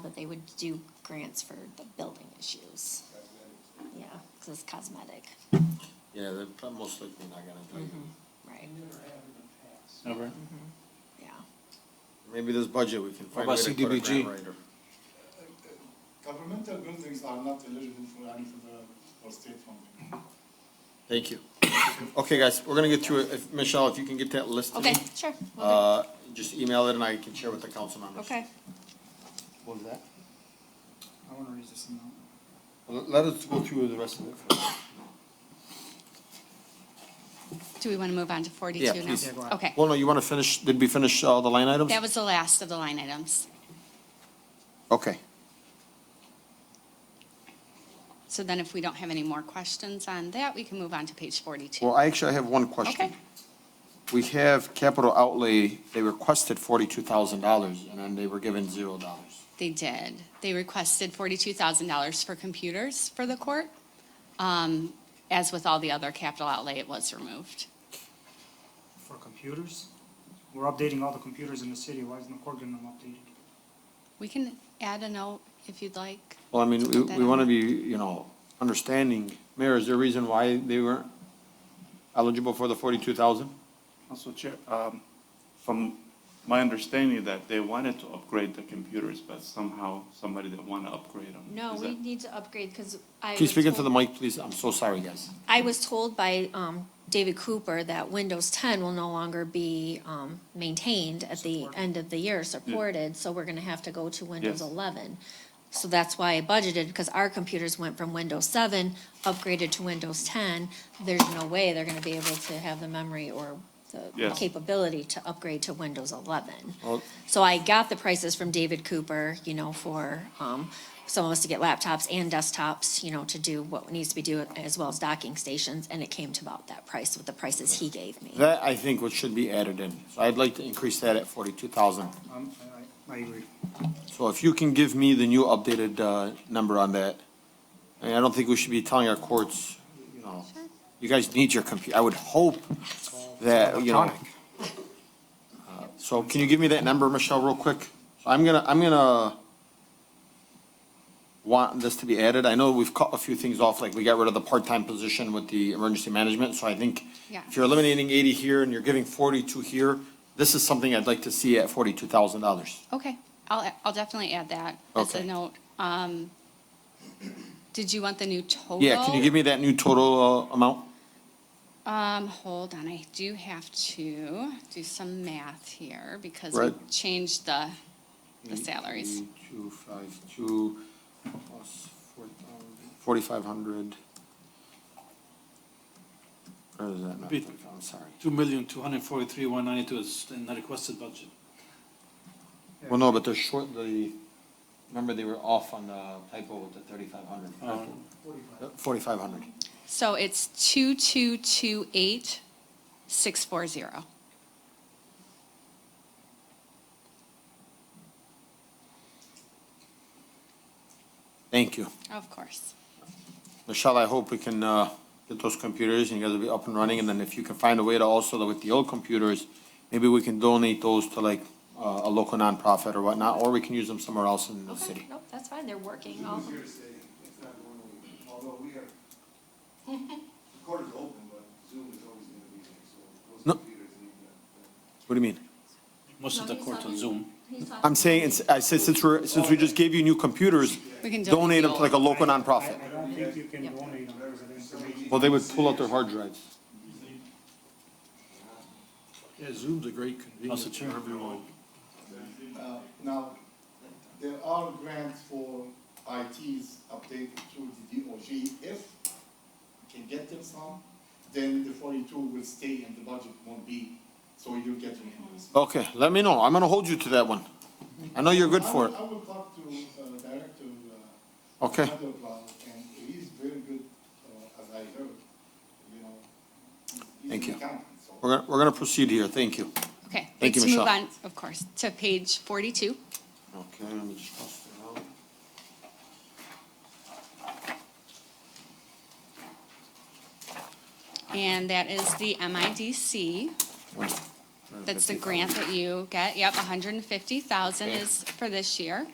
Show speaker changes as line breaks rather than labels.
that they would do grants for the building issues. Yeah, because it's cosmetic,
Yeah, they're prob- most likely not gonna do it.
Mm-hmm.
right, Mm-hmm.
Over.
yeah.
Maybe this budget, we can find a
about
way to put a
CDBG?
grant writer.
Governmental buildings are not eligible for any federal or state funding.
Thank you. Okay, guys, we're gonna get through it. If, Michelle, if you can get that list to me.
Okay, sure, will
Uh, just email it and I can share with the council
do.
members.
Okay,
What was that?
I want to read this now.
Let us go through the rest of it first.
Do we want to move on to 42 now?
please. Yeah, go
Okay.
Well, no, you wanna finish, did we finish all the line items?
That was the last of the line items.
Okay.
So then if we don't have any more questions on that, we can move on to page 42.
Well, I actually have one question.
Okay.
We have capital outlay, they requested forty-two thousand dollars and then they were given zero dollars.
They did. They requested $42,000 for computers for the court. Um, As with all the other capital outlay, it was removed.
For computers? We're updating all the computers in the city, why isn't the court getting them updated?
We can add a note if you'd like.
Well, I mean, we,
That-
we wanna be, you know, understanding. Mayor, is there a reason why they weren't eligible for the forty-two thousand?
Also, Chair, um, from my understanding that they wanted to upgrade the computers, but somehow somebody didn't want to upgrade them.
no,
Is
we
that-
need to upgrade because I
Can you
was
speak into the
told,
mic, please? I'm so sorry, guys.
I was told by, um, David Cooper that Windows ten will no longer be, um, maintained at the end of the year, supported, so we're gonna have to go to Windows
Yes.
eleven. So that's why I budgeted, because our computers went from Windows seven, upgraded to Windows ten. There's no way they're gonna be able to have the memory or the
Yes.
capability to upgrade to Windows eleven.
Well-
So I got the prices from David Cooper, you know, for, um, some of us to get laptops and desktops, you know, to do what needs to be done, as well as docking stations, and it came to about that price with the prices he gave me.
That, I think, what should be added in. So I'd like to increase that at forty-two thousand.
Um, I, I I agree.
So if you can give me the new updated, uh, number on that, I mean, I don't think we should be telling our courts, you know, you guys need your computer. I would hope that, you know. uh,
Electronic.
So can you give me that number, Michelle, real quick? I'm gonna, I'm gonna want this to be added. I know we've cut a few things off, like we got rid of the part-time position with the emergency management, so I think
Yeah.
if you're eliminating eighty here and you're giving forty-two here, this is something I'd like to see at forty-two thousand dollars.
Okay, I'll, I'll definitely add that as a
Okay.
note. Um, Did you want the new total?
Yeah, can you give me that new total, uh, amount?
Um, hold on, I do have to do some math here because we
Right. Mm-hmm.
changed the, the salaries.
Two, five, two, plus four thousand, forty-five hundred. Or is that not,
Bit.
I'm sorry.
Two million, two hundred forty-three, one ninety-two is in the requested budget.
Well, no, but they're short, the, remember they were off on the typo with the thirty-five hundred. Forty-five hundred.
So it's two, two, two, eight, six, four, zero.
Thank you.
Of course.
Michelle, I hope we can, uh, get those computers and you guys will be up and running. And then if you can find a way to also, with the old computers, maybe we can donate those to like, uh, a local nonprofit or whatnot, or we can use them somewhere else in the city.
Nope, that's fine, they're working,
Oh.
all,
it's not going away, although we are, the court is open, but Zoom is always going to be there, so
No.
those computers need that.
What do you mean?
Most of
No,
the
he's
court on
talking-
Zoom.
I'm saying, it's- I said, since we're, since we just gave you new computers,
We can
donate them to like a local
I,
nonprofit.
I don't think you can donate them, because it is a major-
Well, they would pull out their hard drives.
Yeah, Zoom's a great
Also
convenience
true.
for everyone.
Uh, Now, there are grants for ITs updated to the DOG. If we can get them some, then the forty-two will stay and the budget won't be, so you'll get reimbursed.
Okay, let me know. I'm gonna hold you to that one. I know you're good for
I
it.
will- I will talk to uh, Director uh,
Okay.
Mandelbaum, and he's very good, uh, as I heard, you know. he's- he's
Thank
an
you.
accountant, so-
We're gonna, we're gonna proceed here. Thank you.
Okay.
Thank you,
let's move
Michelle.
on, Of course, to page forty-two.
Okay, let me just cross it out.
And that is the MIDC. That's the grant that you get. Yep, hundred and fifty thousand is for this year.